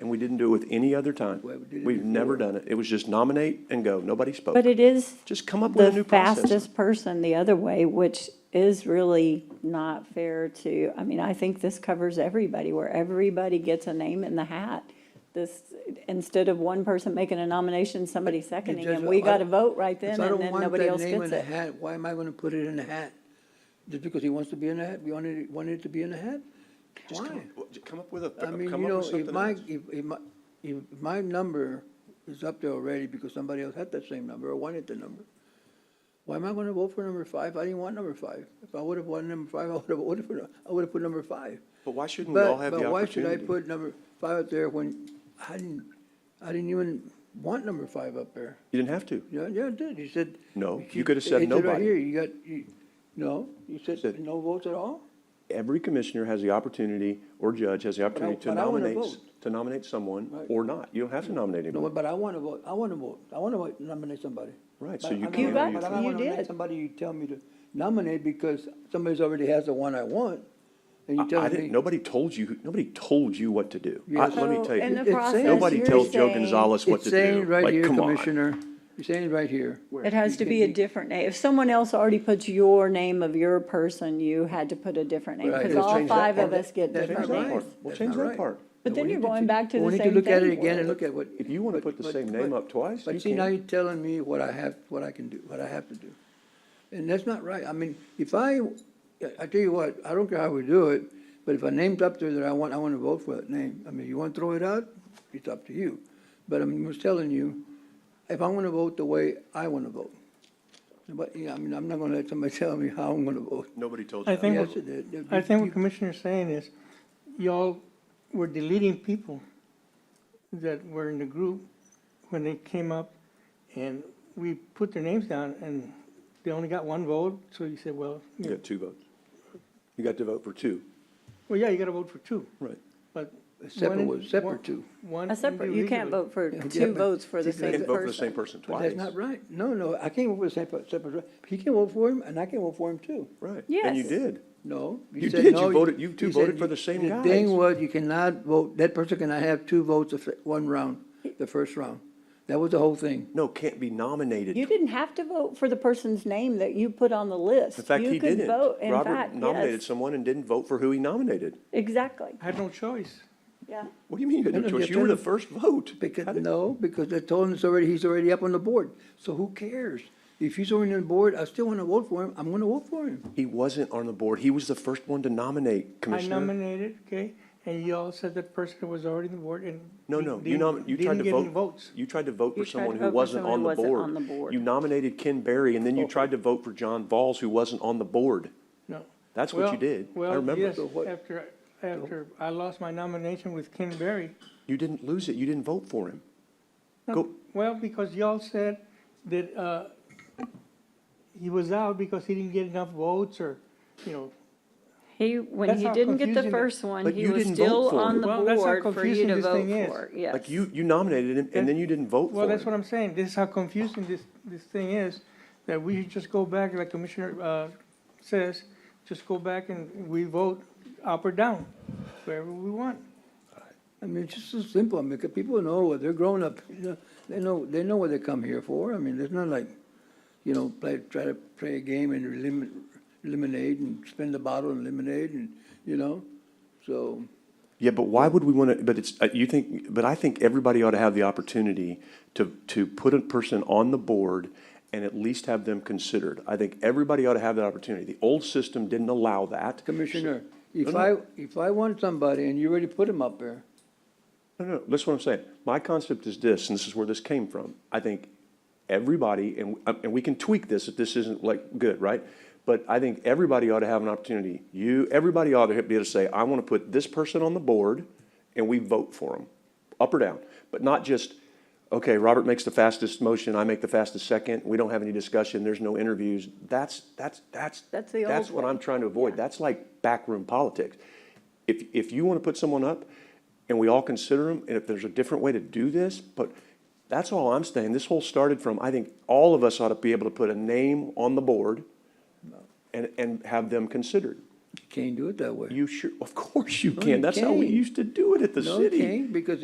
and we didn't do it with any other time. Well, we did it We've never done it. It was just nominate and go. Nobody spoke. But it is Just come up with a new the process. fastest person the other way, which is really not fair to, I mean, I think this covers everybody, where everybody gets a name in the hat. This, instead of one person making a nomination, somebody seconding, just- and we I- got to vote right If then, I and don't then want nobody that else name in gets the it. hat, Why am I gonna put it in a hat? Just because he wants to be in a hat, we wanted, it- wanted it to be in a hat? Just come Why? up- just Come up with a, I mean, come you up know, with if something my, else. if, if my, if my number is up there already because somebody else had that same number or wanted the number, why am I gonna vote for number five? I didn't want number five. If I would've wanted number five, I would've voted for, I would've put number five. But why shouldn't we all But, have the but why should I opportunity? put number five up there when I didn't, I didn't even want number five up there? You didn't have to. Yeah, yeah, it did. You said. No, you keep- could have said it right nobody. here, you got, you, no, you said Said- no votes at all? Every commissioner has the opportunity, or judge has the opportunity to but I wanna nominate, vote. to nominate someone Right. or not. You don't have to nominate No, anyone. but I want to vote. I want to vote. I want to vote, nominate somebody. Right, so But you I don't can wanna- You got- but I don't you wanna nominate did. Somebody you tell me to nominate because somebody's already has the one I want, and you I I tell didn't, me. nobody told you, nobody told you what to do. I- Yes. Let me So, tell you, in the It's saying- process, nobody you're tells Joe saying- Gonzalez what It's to saying do. right Like, here, come on. Commissioner, it's saying right here. It has to be a different name. If someone else already puts your name of your person, you had to put a different name, Right. because Just all change that five of part. us get That's different not names. right. We'll change that part. But No, then we you're need going back to we the need same look at it thing, again Warren. and look at what. If you wanna but- put the but- same name but- up twice, you But see, now can. you're telling me what I have, what I can do, what I have to do. And that's not right. I mean, if I, I tell you what, I don't care how we do it, but if a name's up there that I want, I wanna vote for that name. I mean, you wanna throw it out, it's up to you. But I'm just telling you, if I wanna vote the way I wanna vote. But, yeah, I mean, I'm not gonna let somebody tell me how I'm gonna vote. Nobody told I you. think how Yes, to it vote. did. I think what Commissioner's saying is, y'all were deleting people that were in the group when they came up, and we put their names down, and they only got one vote, so you said, well, You yeah, got two votes. You got to vote for two, well, yeah, you gotta vote for two, right? but. Separate one in- was- separate one- two. One. A separate, you can't individually. vote for Yeah, two but- votes for the See, You same can't person. vote for the same person But twice. that's not right. No, no, I can't vote for the same per- separate, he can vote for him, and I can vote for him too. Right. And Yes. you did. No. You said did. no, You voted- you two said voted for you- the same guys. The thing was, you cannot vote, that person cannot have two votes of one round, the first round. That was the whole thing. No, can't be nominated. You didn't have to vote for the person's name that you put on the list. In fact, You he could didn't. vote, in Robert fact, nominated yes. someone and didn't vote for who he nominated. Exactly, I had no choice. yeah. What do you mean you had No, no no, choice? you You were the didn't. first vote. Because, no, because they told him it's already, he's already up on the board. So who cares? If he's already on the board, I still want to vote for him, I'm going to vote for him. He wasn't on the board. He was the first one to nominate, I Commissioner. nominated, okay, and y'all said that person was already on the board and. No, no, you nom, didn't- you tried didn't to get any vote, votes. you tried to vote for You tried to someone vote who for wasn't someone on who the wasn't on the board. board. Oh. You nominated Ken Berry, and then you tried to vote for John Valls, who wasn't on the board. No. That's what you Well- did. I well, remember. yes, So what- After, after I lost my nomination with Ken Berry. You didn't lose it. You didn't vote for him. No, Go- Well, because y'all said that, uh, he was out because he didn't get enough votes or, you know. He, when That's he how didn't get the confusing it- first one, But he you was didn't vote still for on it. the Well, that's how board for you confusing to this vote thing is. for, yes. Like, you, you nominated him, and then you didn't vote for him. Well, that's what I'm saying. This is how confusing this, this thing is, that we should just go back, like Commissioner, uh, says, just go back and we vote up or down, wherever we want. I mean, it's just so simple. I mean, 'cause people know what they're grown up, you know, they know, they know what they come here for. I mean, it's not like, you know, play, try to play a game and eliminate, eliminate and spin the bottle and eliminate and, you know? So, Yeah, but why would we want to, but it's, uh, you think, but I think everybody ought to have the opportunity to, to put a person on the board and at least have them considered. I think everybody ought to have that opportunity. The old system didn't allow that. Commissioner, No, if no. I, if I want somebody and you already put him up there, No, no, that's what I'm saying. My concept is this, and this is where this came from. I think everybody, and, um, and we can tweak this if this isn't like good, right? But I think everybody ought to have an opportunity. You, everybody ought to be able to say, I want to put this person on the board and we vote for them, up or down. But not just, okay, Robert makes the fastest motion, I make the fastest second, we don't have any discussion, there's no interviews. That's, that's, that's, That's the that's old what way. I'm trying to avoid. That's like backroom politics. If, if you want to put someone up and we all consider them, and if there's a different way to do this, but that's all I'm saying. This whole started from, I think all of us ought to be able to put a name on the board and, and have them considered. you can't do it that way. You sure, of course you No, you can. That's how we can't. used to do it at the No, you city. can't, because